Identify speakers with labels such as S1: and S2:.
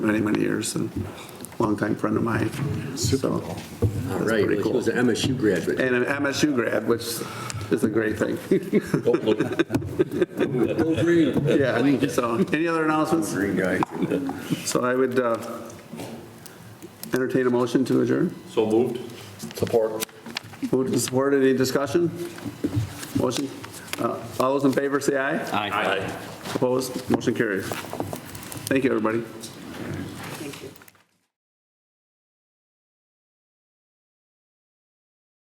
S1: many, many years and longtime friend of mine. So
S2: All
S1: that's
S2: right,
S1: pretty
S2: well, she
S1: cool.
S2: was an MSU graduate.
S1: And an MSU grad, which is a great thing. Yeah, so, any other announcements?
S2: Green guy.
S1: So I would uh, entertain a motion to adjourn.
S3: So moved. Support.
S1: Moved and supported, any discussion? Motion, Uh, all those in favor say aye.
S3: Aye.
S1: Opposed, motion carries. Thank you, everybody.